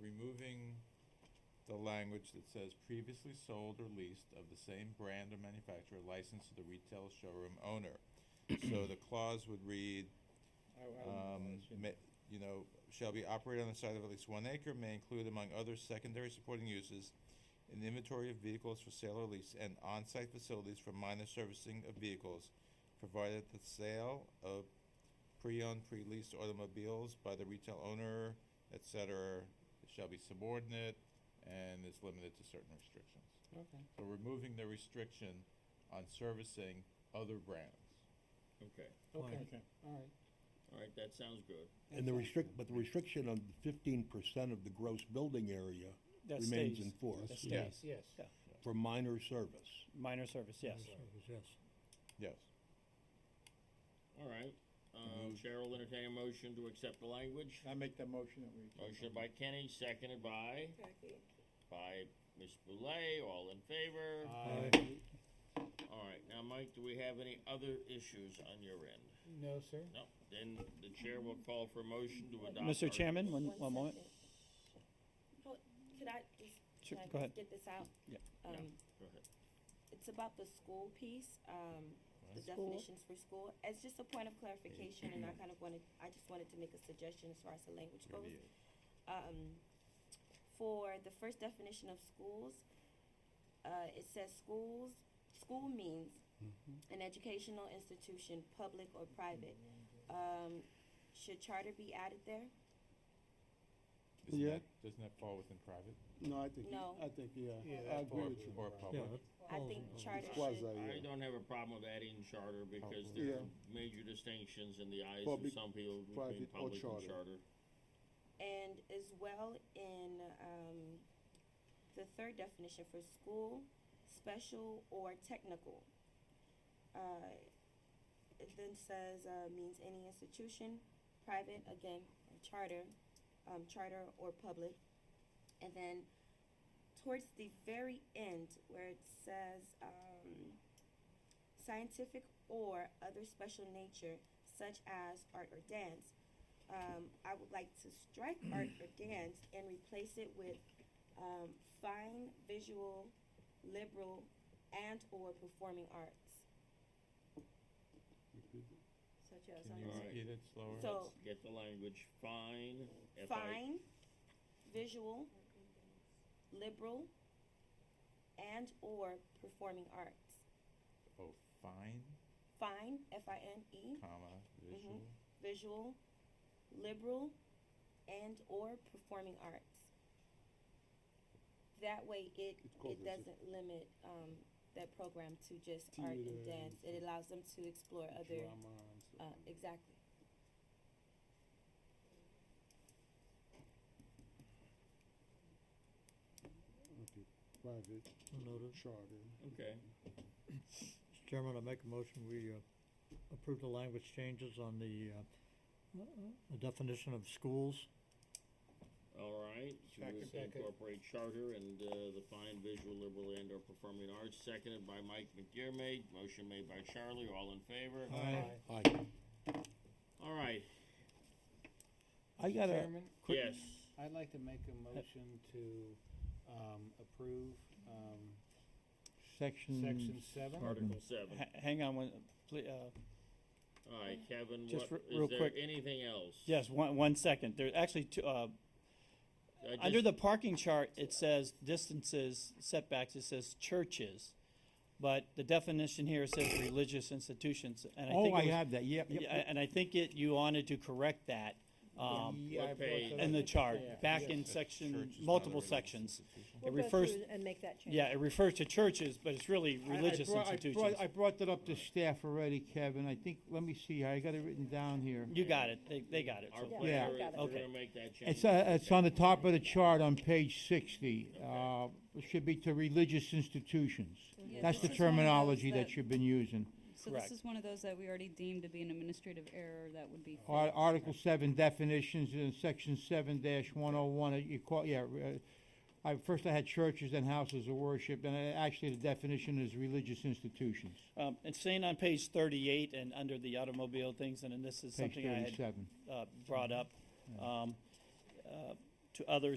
removing the language that says previously sold or leased of the same brand or manufacturer licensed to the retail showroom owner. So the clause would read, Oh, I- I wouldn't know, um, I shouldn't. ma- you know, shall be operated on the site of at least one acre, may include among other secondary supporting uses, an inventory of vehicles for sale or lease, and on-site facilities for minor servicing of vehicles, provided the sale of pre-owned, pre-leased automobiles by the retail owner, et cetera, shall be subordinate and is limited to certain restrictions. Okay. So removing the restriction on servicing other brands. Okay, Oh, Fine. okay, all right. All right, that sounds good. And the restrict, but the restriction on fifteen percent of the gross building area That remains stays. in force That Yeah. stays, yes. for minor service. Minor service, yes. Yes. All right, um, Mm-hmm. Mhm. Cheryl will entertain a motion to accept the language. I make that motion that we. Motion by Kenny, seconded by, Jackie. by Ms. Boulay, all in favor. Uh. Aye. Uh, All right, now, Mike, do we have any other issues on your end? No, sir. No, then the chair will call for a motion to adopt. Mr. Article- Chairman, one, one moment. second. Hold- Could I just, Sure, can I go ahead. just get this out? Yeah. Yeah. Um, Go ahead. it's about the school piece, um, the Right. School. definitions for school. It's just a point of clarification and I kind of wanted, I just wanted to make a suggestion as far as the language You're goes. the- um, for the first definition of schools, uh, it says schools, school means Mm-hmm. an educational institution, public or private. Um, should charter be added there? Isn't Yeah. that, doesn't that fall within private? No, I think, No. I think, yeah, Yeah, I that's agree Or, with you. or Yeah, public? I think oh, charter It's quasi, should, I Oh, yeah. Oh, don't have a problem with adding charter because there are major distinctions in the eyes of Public, some people between private or public and charter. charter. and as well in, um, the third definition for school, special or technical. Uh, it then says, uh, means any institution, private, again, or charter, um, charter or public. And then towards the very end where it says, um, scientific or other special nature such as art or dance, um, I would like to strike art or dance and replace it with, um, fine visual, liberal, and or performing arts, such as. Can you um, Alright. repeat it slower? So- Get the language fine. F I- fine, visual, liberal, and or performing arts. Oh, fine, Fine, F-I-N-E, comma, visual. visual, liberal, and or performing arts. That way, it It's called it the- doesn't limit um, that program to just art and Theater dance. It allows them to explore other. Drama and stuff. Uh, exactly. Okay. Private, charter. Okay, Mr. Chairman, I make a motion, we uh, approve the language changes on the uh, uh, the definition of schools. all right. So we'll Second. say Incorporate charter and, uh, the fine visual liberal and or performing arts, seconded by Mike McDermott, motion made by Charlie, all in favor? Aye. All right, I got a, Chairman, Quick- yes, I'd like to make a motion to um, approve um, section. section seven. Article seven. Ha- Hang on one, pl- uh, All right, Kevin, Just what, re- real is there quick. anything else? yes, one, one second. There, actually, two, uh, I under just- the parking chart, it says distances, setbacks, it says churches. But the definition here says religious institutions, and I Oh, think I it was, have that, yep, yep, yeah, yep. and I think it, you wanted to correct that, um, What page? in the chart, back Yes, in that section, church is not a multiple religious sections. institution. It We'll go refers- through and make that change. Yeah, it refers to churches, but it's really I- I religious brought- I brought- institutions. I brought that up to staff already, Kevin. I think, let me see, I got it written down here. You got it, they, they got it. Our so- plan Yeah. is Got it. we're Okay. gonna make that change. It's, uh, it's on the top of the chart on page sixty. Uh, Okay. it should be to religious institutions. uh, Yeah, That's the this is one of terminology those that you've been using. So Correct. this is one of those that we already deemed to be an administrative error that would be. Ar- Article seven definitions in section seven dash one oh one, you call, yeah, uh, I, first I had churches and houses of worship, and uh, actually the definition is religious institutions. Um, it's saying on page thirty-eight and under the automobile things, and then this is Page something I had, thirty-seven. uh, brought up, um, uh, to others